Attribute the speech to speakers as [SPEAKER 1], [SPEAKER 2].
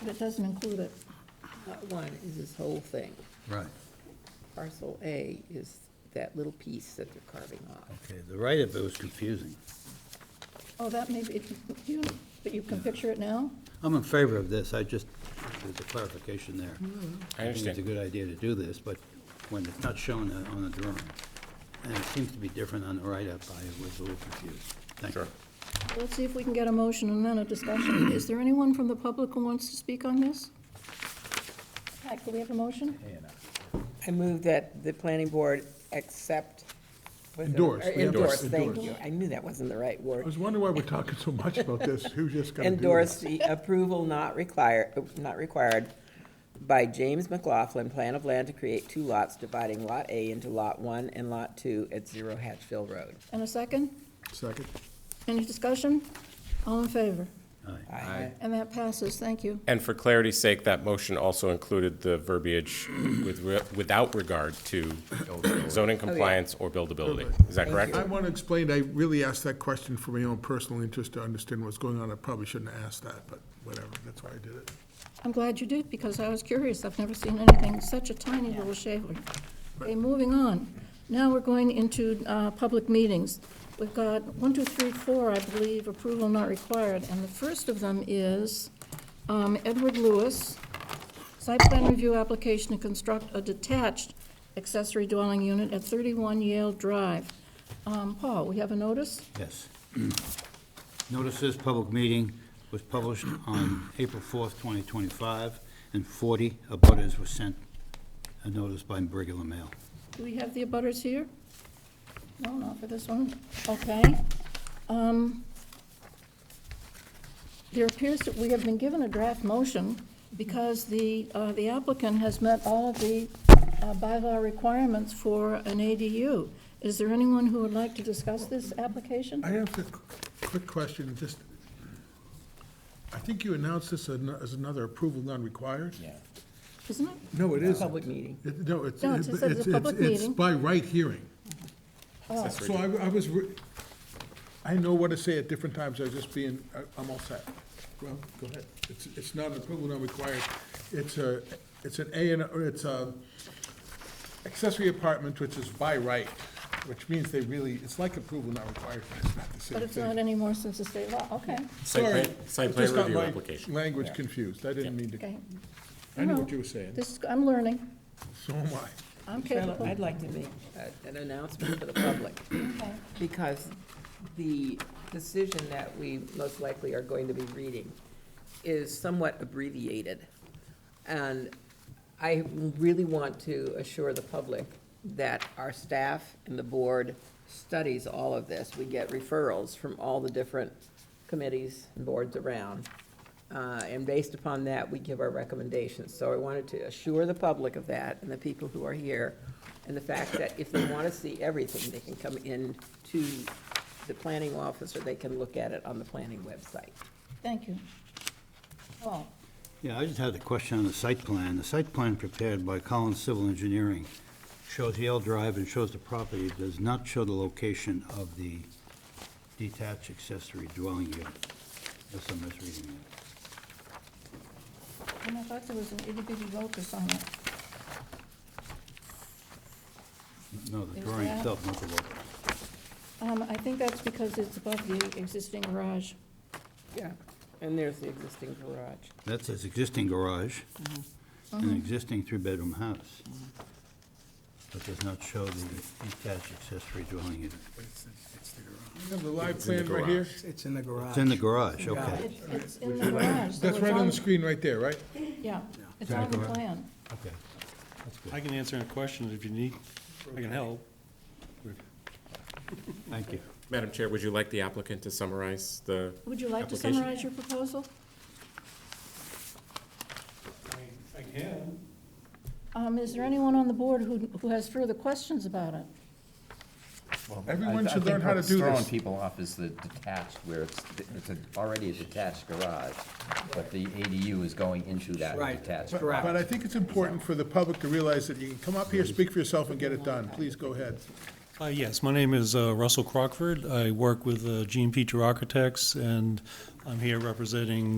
[SPEAKER 1] but it doesn't include it.
[SPEAKER 2] Lot one is this whole thing.
[SPEAKER 3] Right,
[SPEAKER 2] Parcel A is that little piece that they're carving off.
[SPEAKER 3] okay, the write-up, it was confusing.
[SPEAKER 1] Oh, that may be, if you, but you can picture it now?
[SPEAKER 3] I'm in favor of this, I just, there's a clarification there.
[SPEAKER 4] I
[SPEAKER 3] think It's a
[SPEAKER 4] understand.
[SPEAKER 3] good idea to do this, but when it's not shown on- on the drawing, and it seems to be different on the write-up, I was a little confused. Thank you.
[SPEAKER 4] Sure.
[SPEAKER 1] Let's see if we can get a motion and then a discussion. Is there anyone from the public who wants to speak on this? Pat, can we have a motion?
[SPEAKER 2] I move that the planning board accept. was it-
[SPEAKER 5] Endorse,
[SPEAKER 2] or
[SPEAKER 5] we have to
[SPEAKER 2] Endorse, thank
[SPEAKER 5] endorse.
[SPEAKER 2] you. I knew that wasn't the right
[SPEAKER 5] I
[SPEAKER 2] word.
[SPEAKER 5] was wondering why we're talking so much about this, who's just gonna do
[SPEAKER 2] Endorse
[SPEAKER 5] this?
[SPEAKER 2] the approval not required, not required by James McLaughlin, plan of land to create two lots, dividing Lot A into Lot One and Lot Two at Zero Hatchville Road.
[SPEAKER 1] And a second?
[SPEAKER 5] Second,
[SPEAKER 1] Any discussion? All in favor?
[SPEAKER 3] Aye.
[SPEAKER 2] Aye.
[SPEAKER 1] And that passes, thank you.
[SPEAKER 4] And for clarity's sake, that motion also included the verbiage with, re- without regard to zoning
[SPEAKER 5] Oh,
[SPEAKER 4] compliance or buildability. Is that correct?
[SPEAKER 5] I wanna explain, I really asked that question for my own personal interest to understand what's going on, I probably shouldn't have asked that, but whatever, that's why I did it.
[SPEAKER 1] I'm glad you did, because I was curious. I've never seen anything, such a tiny little shaver. Okay, moving on. Now we're going into uh, public meetings. We've got one, two, three, four, I believe, approval not required. And the first of them is um, Edward Lewis, site plan review application to construct a detached accessory dwelling unit at 31 Yale Drive. Um, Paul, we have a notice?
[SPEAKER 3] Yes. Notice this public meeting was published on April 4th, 2025, and 40 abutters were sent a notice by regular mail.
[SPEAKER 1] Do we have the abutters here? No, not for this one. Okay. Um, There appears that we have been given a draft motion because the uh, the applicant has met all of the uh, bylaw requirements for an ADU. Is there anyone who would like to discuss this application?
[SPEAKER 5] I have a qu- quick question, just, I think you announced this as an- as another approval not required? Yeah.
[SPEAKER 1] Isn't it?
[SPEAKER 5] No, it isn't.
[SPEAKER 2] Public meeting.
[SPEAKER 5] It- No, it's,
[SPEAKER 1] No, it just says it's a
[SPEAKER 5] it's,
[SPEAKER 1] public
[SPEAKER 5] it's- it's
[SPEAKER 1] meeting.
[SPEAKER 5] by right hearing. Oh, So I, I was, re- I know what to say at different times, I was just being, I- I'm all set. Well, go ahead. It's, it's not an approval not required, it's a, it's an A and, or it's a accessory apartment, which is by right, which means they really, it's like approval not required, but it's not the same
[SPEAKER 1] But it's
[SPEAKER 5] thing.
[SPEAKER 1] not anymore since the state law. Okay.
[SPEAKER 4] Site
[SPEAKER 5] Sorry,
[SPEAKER 4] plan- site
[SPEAKER 5] I
[SPEAKER 4] plan
[SPEAKER 5] just got
[SPEAKER 4] review
[SPEAKER 5] my
[SPEAKER 4] application.
[SPEAKER 5] Language confused, I didn't mean to,
[SPEAKER 1] Okay.
[SPEAKER 5] I knew
[SPEAKER 1] No.
[SPEAKER 5] what you were saying,
[SPEAKER 1] This is, I'm learning.
[SPEAKER 5] so am I.
[SPEAKER 1] I'm
[SPEAKER 2] Well,
[SPEAKER 1] capable.
[SPEAKER 2] I'd like to make a- an announcement for the public,
[SPEAKER 1] Okay.
[SPEAKER 2] because the decision that we most likely are going to be reading is somewhat abbreviated. And I really want to assure the public that our staff and the board studies all of this. We get referrals from all the different committees and boards around. Uh, And based upon that, we give our recommendations. So I wanted to assure the public of that and the people who are here, and the fact that if they want to see everything, they can come in to the planning office, or they can look at it on the planning website.
[SPEAKER 1] Thank you. Paul?
[SPEAKER 3] Yeah, I just had a question on the site plan. The site plan prepared by Collins Civil Engineering shows Yale Drive and shows the property, It does not show the location of the detached accessory dwelling unit. Unless I'm misreading it.
[SPEAKER 1] And I thought there was an itty bitty locus on it.
[SPEAKER 3] No, the
[SPEAKER 1] There's
[SPEAKER 3] drawing
[SPEAKER 1] that.
[SPEAKER 3] itself, not the location.
[SPEAKER 1] Um, I think that's because it's above the existing garage.
[SPEAKER 2] Yeah. And there's the existing garage.
[SPEAKER 3] That's his existing garage, and an existing three-bedroom house. But does not show the detached accessory dwelling unit.
[SPEAKER 5] You have the live plan right here?
[SPEAKER 6] It's in the garage.
[SPEAKER 3] It's in the garage, okay,
[SPEAKER 1] It's, it's in the garage. so
[SPEAKER 5] That's
[SPEAKER 1] it's
[SPEAKER 5] right on the screen right there, right?
[SPEAKER 1] Yeah, it's
[SPEAKER 3] Yeah.
[SPEAKER 1] on the
[SPEAKER 3] Garage.
[SPEAKER 1] plan.
[SPEAKER 3] okay. That's
[SPEAKER 7] I
[SPEAKER 3] good,
[SPEAKER 7] can answer any questions if you need, I can help.
[SPEAKER 3] thank you.
[SPEAKER 4] Madam Chair, would you like the applicant to summarize the?
[SPEAKER 1] Would you like to
[SPEAKER 4] application?
[SPEAKER 1] summarize your proposal?
[SPEAKER 7] I can.
[SPEAKER 1] Um, is there anyone on the board who, who has further questions about it?
[SPEAKER 8] Well,
[SPEAKER 5] Everyone
[SPEAKER 8] I th- I
[SPEAKER 5] should
[SPEAKER 8] think
[SPEAKER 5] learn how to
[SPEAKER 8] what's
[SPEAKER 5] do this.
[SPEAKER 8] Throwing people off is the detached, where it's, it's a- already a detached garage, but the ADU is going into that
[SPEAKER 6] Right.
[SPEAKER 8] detached
[SPEAKER 5] But-
[SPEAKER 8] garage.
[SPEAKER 5] But I think it's important for the public to realize that you can come up here, speak for yourself, and get it done. Please go ahead.
[SPEAKER 7] Uh, yes, my name is uh, Russell Crockford. I work with uh, Gene Petrie Architects, and I'm here representing